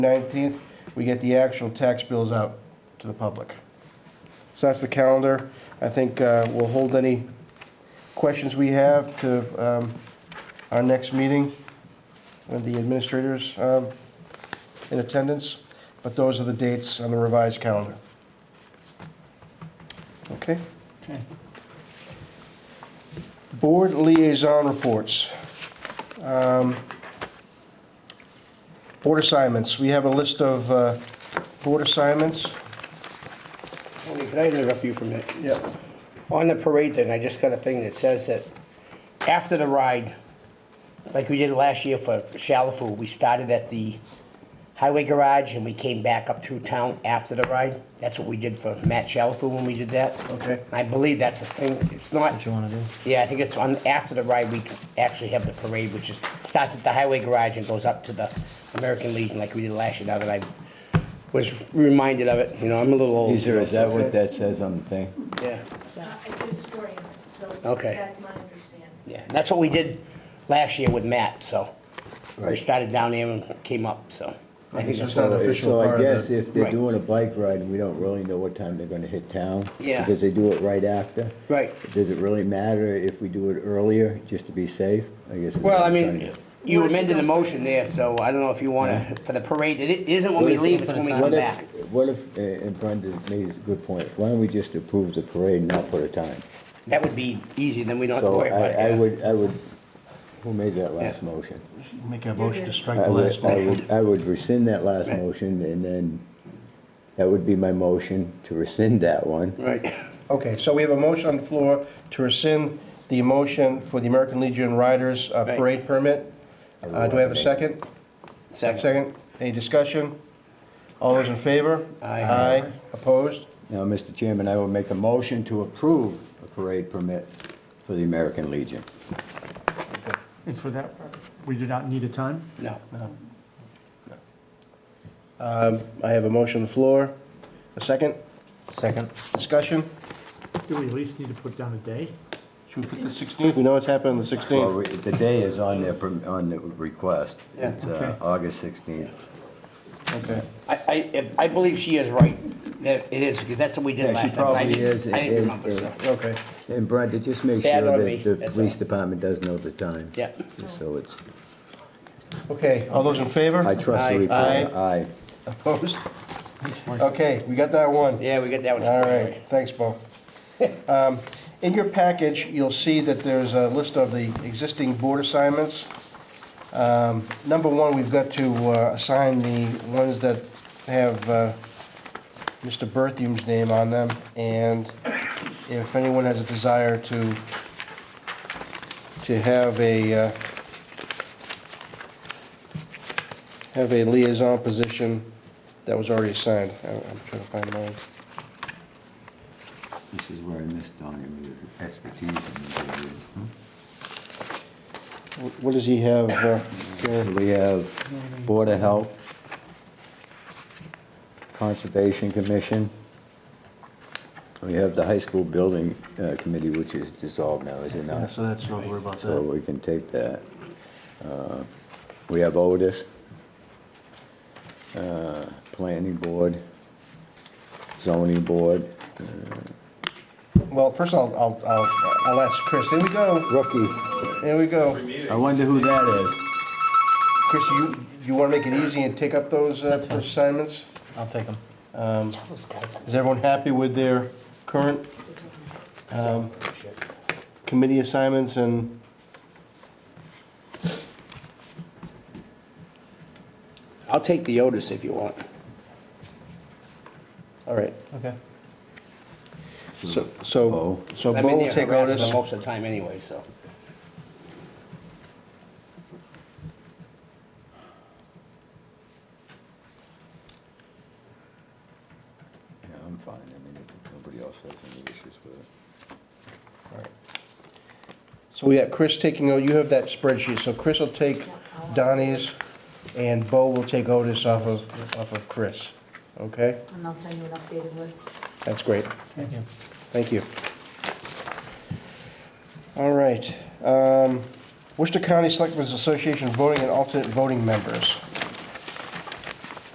19th, we get the actual tax bills out to the public. So that's the calendar. I think uh, we'll hold any questions we have to um, our next meeting with the administrators um, in attendance, but those are the dates on the revised calendar. Okay? Okay. Board liaison reports. Um, Board assignments, we have a list of uh, board assignments. Tony, can I interrupt you for a minute? Yeah. On the parade thing, I just got a thing that says that after the ride, like we did last year for Shalafu, we started at the highway garage and we came back up through town after the ride. That's what we did for Matt Shalafu when we did that. Okay. I believe that's the thing, it's not, What you wanna do? yeah, I think it's on, after the ride, we actually have the parade, which is, starts at the highway garage and goes up to the American Legion like we did last year, now that I was reminded of it, you know, I'm a little old. Caesar, is that what that says on the thing? Yeah. Uh, I did swear in, so Okay. that's my understanding. Yeah, and that's what we did last year with Matt, so. We started down there and came up, so. I think So that's it's not official So I part of guess the- if they're Right. doing a bike ride, we don't really know what time they're gonna hit town. Yeah. Because they do it right after. Right. Does it really matter if we do it earlier, just to be safe? I guess. is what Well, I I'm trying to- mean, you amended the motion there, so I don't know if you wanna, for the parade, it isn't when we leave, it's when we come What if- back. What if, uh, and Brenda made a good point, why don't we just approve the parade and not put a time? That would be easy, then we don't have to So worry about I, it. I yeah. would, I would, who made that last Yeah. motion? Make a motion to strike I the last would, I motion. would, I would rescind that last Right. motion and then, that would be my motion to rescind that one. Right, Okay, so we have a motion on the floor to rescind the motion for the American Legion Riders uh, Right. Parade permit. Uh, Do I have a second? second, Second. Any discussion? All those in favor? Aye. Aye. Opposed? Now, Mr. Chairman, I will make a motion to approve a parade permit for the American Legion. And for that, we do not need a time? no. Um, I have a motion on the floor. A second? Second. Discussion? Do we at least need to put down a day? Should we put the 16th? We know what's happening on the Well, 16th. we- the day is on the, perm- on the request. It's uh, Okay. August 16th. Okay. I, I, I believe she is right, that it is, because that's what we did Yeah, she last time. I probably didn't- is, I and- didn't remember, so, and- Okay. And Brenda, just make Bad sure on me, that the that's police all. department does know the time. Yeah. Just So it's, Okay, all those in favor? I trust Aye. the report. Aye. Opposed? Okay, we got that one. yeah, we got that one. All right, thanks, Bo. Um, In your package, you'll see that there's a list of the existing board assignments. Um, Number one, we've got to uh, assign the ones that have uh, Mr. Berthium's name on them, and if anyone has a desire to, to have a, uh, have a liaison position that was already assigned, I- I'm trying to find mine. This is where I missed on your expertise in the areas, huh? Wh- What does he have, uh, Gary? We have Board of Health, Conservation Commission. We have the High School Building uh, Committee, which is dissolved now, is it Yeah, not? Uh, So that's, don't worry about So that. we can take that. Uh, We have Otis, uh, Planning Board, Zoning Board, Well, first I'll, I'll, I'll- I'll ask Chris, here we go, Rookie. here we go. I wonder who that is. Chris, you, you wanna make it easy and take up those uh, first assignments? Um, I'll take them. Is everyone happy with their current um, committee assignments and? I'll take the Otis if you want. All right, Okay. so, so, Bo. so I'm Bo in will there take harassing them Otis. most of the time anyway, so. Yeah, I'm fine, I mean, if nobody else has any issues with it. So we got Chris taking, oh, you have that spreadsheet, so Chris will take Donnie's and Bo will take Otis off of, off of Chris, okay? And I'll send you an updated list. That's great. Thank you. Thank you. All right. um, Worcester County Selectmen's Association voting and alternate voting members.